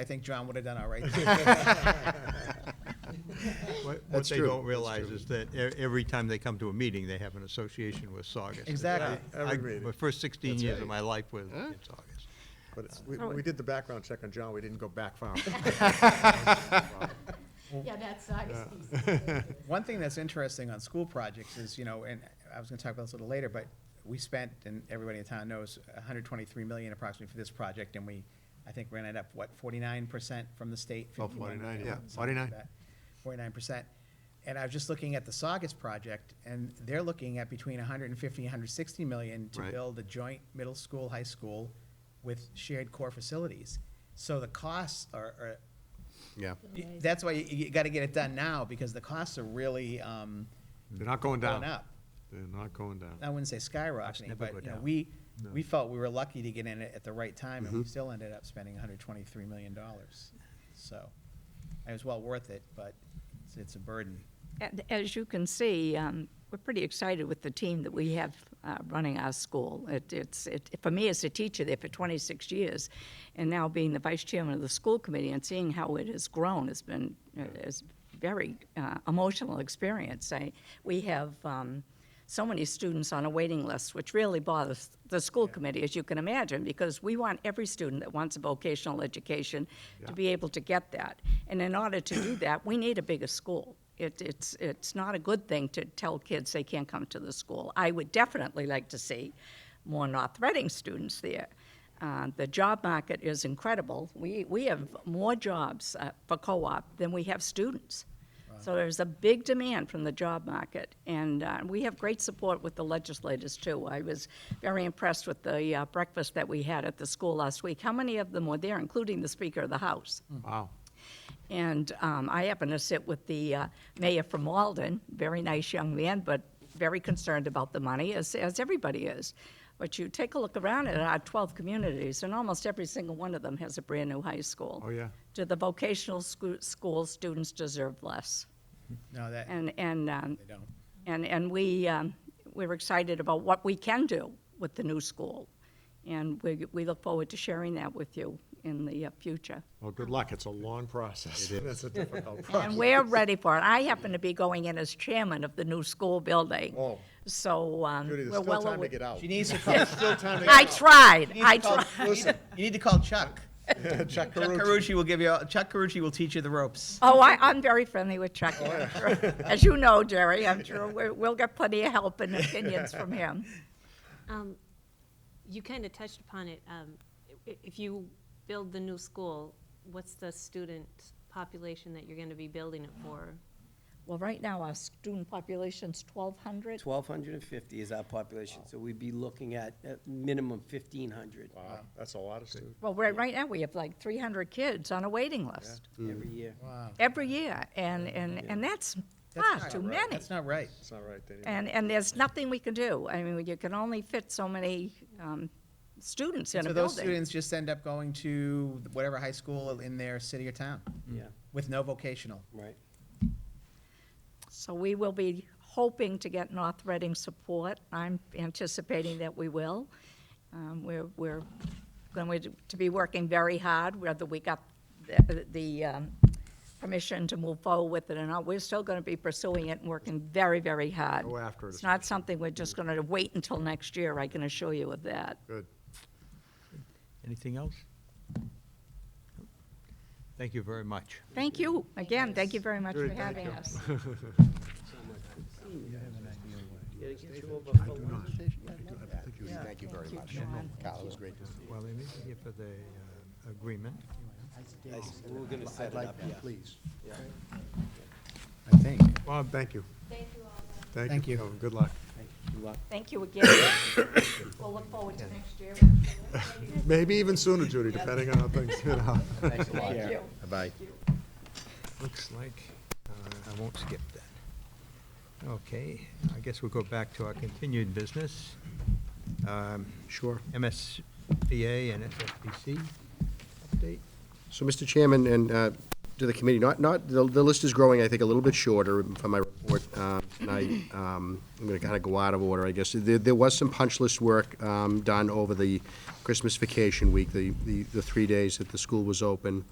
I think John would have done all right. What, what That's they true. don't That's realize true. is that e- every time they come to a meeting, they have an association with Saugus. Exactly. I- Every I- meeting. My first sixteen That's years right. of my life was Huh? in Saugus. But it's, we, we did the background check on John, we didn't go back far. Yeah, that's August piece. One thing that's interesting on school projects is, you know, and I was gonna talk about this a little later, but we spent, and everybody in town knows, hundred twenty-three million approximately for this project, and we, I think, ran it up, what, forty-nine percent from the state? Oh, 51, 49, yeah, something like 49. that, Forty-nine percent. And I was just looking at the Saugus project, and they're looking at between hundred and fifty, hundred sixty million to Right. build a joint middle school, high school with shared core facilities. So the costs are, are Yeah, Y- That's why you, you gotta get it done now, because the costs are really, um, they're not going going down. up. They're not going down. I wouldn't say skyrocketing, never but, go you know, down. we, we felt we were lucky to get in it at the right time, and we still ended up spending hundred twenty-three million dollars. So, it was well worth it, but it's, it's a burden. And as you can see, um, we're pretty excited with the team that we have uh, running our school. It, it's it, for me as a teacher there for 26 years, and now being the vice chairman of the school committee and seeing how it has grown has been uh, is very uh, emotional experience. I, we have. Um, so many students on a waiting list, which really bothers the school committee, as you can imagine, because we want every student that wants a vocational education to be able to get that. And in order to do that, we need a bigger school. It, it's, it's not a good thing to tell kids they can't come to the school. I would definitely like to see more North Reading students there. Uh, the job market is incredible. We, we have more jobs uh, for co op than we have students. So there's a big demand from the job market, and uh, we have great support with the legislators too. I was very impressed with the uh, breakfast that we had at the school last week. How many of them were there, including the Speaker of the House? Wow. And um, I happened to sit with the uh, mayor from Walden, very nice young man, but very concerned about the money, as, as everybody is. But you take a look around at our 12 communities, and almost every single one of them has a brand new high school. Oh, yeah. Do the vocational school, school students deserve less? No, that, And, and, um, they don't. and, and we, um, we're excited about what we can do with the new school. And we, we look forward to sharing that with you in the uh, future. Well, good luck. It's a long process. That's a difficult And process. we're ready for it. I happen to be going in as chairman of the new school building. Oh. So, um, Judy, there's we're still well time to aware. get out. She needs to call, Still time to I get tried, you I need to call, tried. you need- you need to call Chuck. out. Chuck Chuck Carucci. Carucci will give you, all- Chuck Carucci will teach you the ropes. Oh, I, I'm very friendly with Chuck. Oh, As you know, Jerry, I'm sure we're- we'll get plenty of help and opinions from him. Um, You kind of touched upon it. Um, i- If you build the new school, what's the student population that you're going to be building it for? Well, right now, our student population's 1,200. 1,250 is our population, so we'd be looking at at minimum 1,500 Wow, that's a lot of students. Well, right, right now, we have like 300 kids on a waiting list every year. Wow. every year, and, and, and that's far not too right. many. That's not right. It's not right, Danny. And, and there's nothing we can do. I mean, you can only fit so many um, students in So a those building. students just end up going to whatever high school in their city or town Yeah, with no vocational. right. So we will be hoping to get North Reading support. I'm anticipating that we will. Um, We're, we're going to be working very hard, whether we got the- the um, permission to move forward with it or not. We're still going to be pursuing it and working very, very hard. Go after it, It's not something we're just going to wait until next year, I can assure you of that. Good. Anything else? Thank you very much. Thank you. Again, thank you very much for Good, thank having you. us. Yeah, it gets you over for lunch. Thank you very much. John. Kyle, it was great to see Well, they may be here for the uh, agreement. We We're gonna set it up, yeah. Please. I think. Bob, thank you. Thank Thank you. you. Kevin. Good luck. Good luck. Thank you again. We'll look forward to next year. Maybe even sooner, Judy, depending on how things get out. Thanks a lot. Thank you. Bye-bye. Looks like uh, I won't skip that. Okay, I guess we'll go back to our continued business. Um, Sure. MSBA and SFPC update. So, Mr. Chairman, and uh, to the committee, not, not, the the list is growing, I think, a little bit shorter from my report. report um, tonight. Um, I'm going to kind of go out of order, I guess. There there was some punch list work um, done over the Christmas vacation week, the the the three days that the school was open.